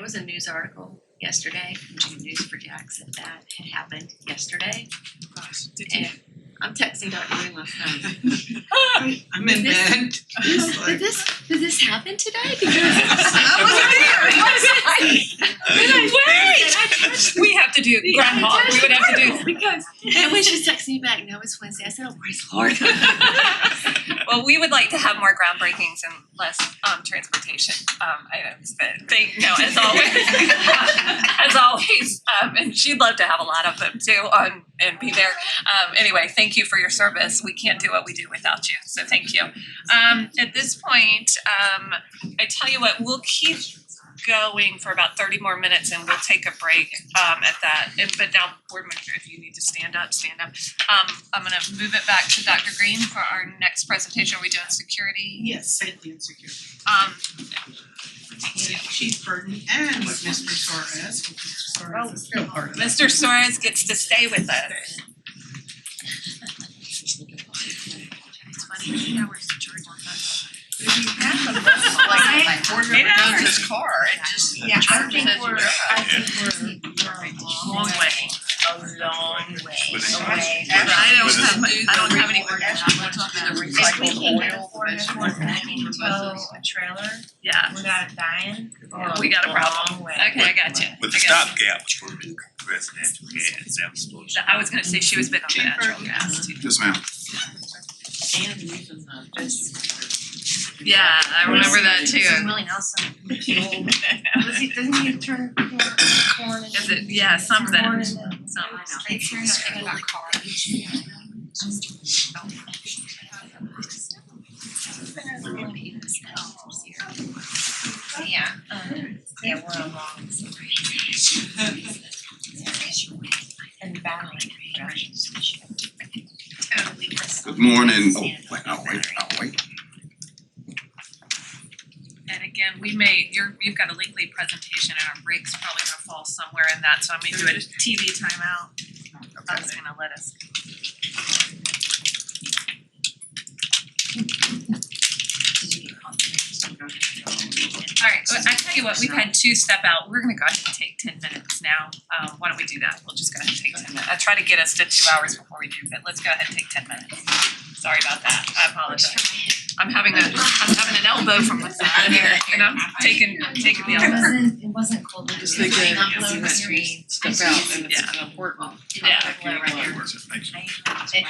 was a news article yesterday from June News for Jackson that had happened yesterday. Gosh, did you? And I'm texting Dr. Green last night. I'm in This- bed. It's Did like- this, did this happen today? I Because. Wait! We have to do Groundhog. We would have to do. Because, and when she texted me back, now it's Wednesday, I said, oh, praise the Lord. Well, we would like to have more groundbreakings and less um, transportation um, items. But thank no, as always, as always, um, and she'd love to have a lot of them too on and be there. Um, anyway, thank you for your service. We can't do what we do without you, so thank you. Um, at this point, um, I tell you what, we'll keep going for about thirty more minutes and we'll take a break um at that. And but now board member, if you need to stand up, stand up. Um I'm gonna move it back to Dr. Green for our next presentation. Are we doing security? Yes, safety and security. Um With Chief Burton and with Mr. Torres, which is Oh, Torres is still part of that. Mr. Suarez gets to stay with us. It's funny, eight hours to charge on that. Like, Board Eight member hours. Dodge's car, it just Yeah, I charges think as you we're, go. I think we're, we're a long Long way. way, a long way But- away. but- I don't but- have, I don't have any But- words, I want to do the If we recycled can get oil, afford it, vegetable we're gonna oil, for tow buses. a trailer Yeah. without it dying. We got a problem. Long way. Okay, I got you. With the I got you. stopgap for the residential gas, that was supposed to. I was gonna say she was big on the natural gas too. Yes, ma'am. And even the Yeah, I remember that So too. Willie Nelson, does he, doesn't he turn corn, corn and? Is it, yeah, something, Corn and something. It's here, it's here. Yeah, um, yeah, we're a long. And battling. Good morning. Oh, wait, I'll wait, I'll wait. And again, we may, you're, you've got a lengthy presentation and our break's probably gonna fall somewhere in that, so I may do a TV timeout. That's gonna let us. Alright, well, I tell you what, we've had two step out, we're gonna go ahead and take ten minutes now, um, why don't we do that, we'll just go ahead and take ten minutes, I try to get us to two hours before we do, but let's go ahead and take ten minutes. Sorry about that, I apologize. I'm having a, I'm having an elbow from the side here, and I'm taking, taking the It elbow. wasn't, it wasn't cold, it was Just like like an that, it's upload not- screen. Step out and it's an important. Yeah. I-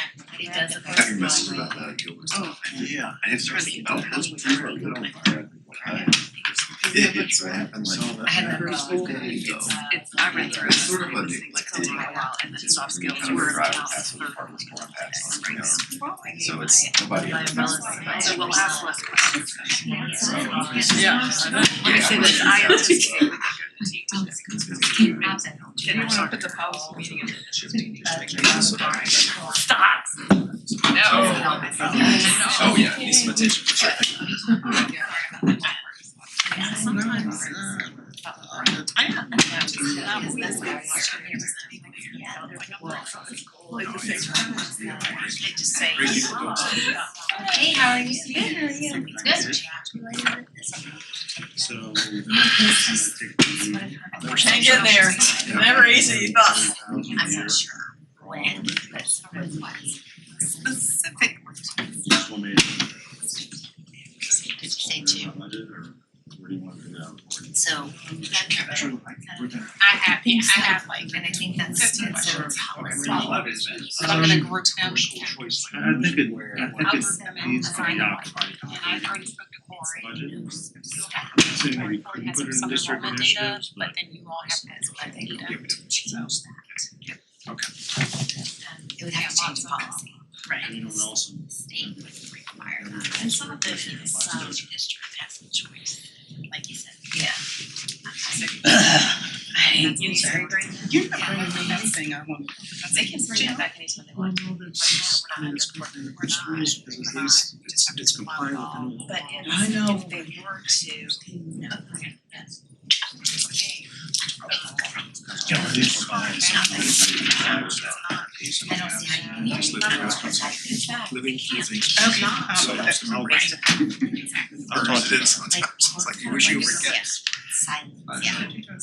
It, it does. I got your message about that, Gilbert. Oh. Yeah, I didn't start thinking about those people that don't fire. Yeah, It, it's that's right. happened like. I had that First problem. school day, It's- Uh, It's, I read through it, It's sort of and I a was big, thinking like, it's gonna take a while, and then soft skills Kind of were drive about past the third park, it's more past, you know, grades. So it's nobody. My ever- umbrellas. So we'll ask less questions. Yeah. Let me say this, I anticipate we're gonna go to teachers. Didn't wanna put the policy meeting in. Stop. No. Oh, yeah, need some attention for sure. Sometimes, uh, I have. Oh, yeah. They just say. Great people don't say that. Hey, how are you? Good, how are you? Good. So. Hang in there. Never easy, but. I'm not sure when, but someone was. Specific. Did you say two? So. I have, yeah, I have like, and I think that's, Fifteen. that's so it's tolerable. I I'm gonna group them. think it, I think I'll- it needs to be occupied. already spoke to Corey. Budget. So So maybe we can put it in district initiatives, but then you all have to, I think, you have to change that. Okay. Um, It would have to change the policy. you don't also. State would require that, and some of it is some um, district has some choice, like you said. Yeah. I. That's me, sorry, Brandon. You're not bringing me anything I want. They can bring that back anytime they want. I mean, it's important in the first place because at least it's it's compliant with the law. But if, I know. if they were to, no. I don't see how you can. Just living as- living using- Okay. So, Um, that's- I'll talk to them sometimes, it's like you wish you were Yes. getting silence, yeah. I think that's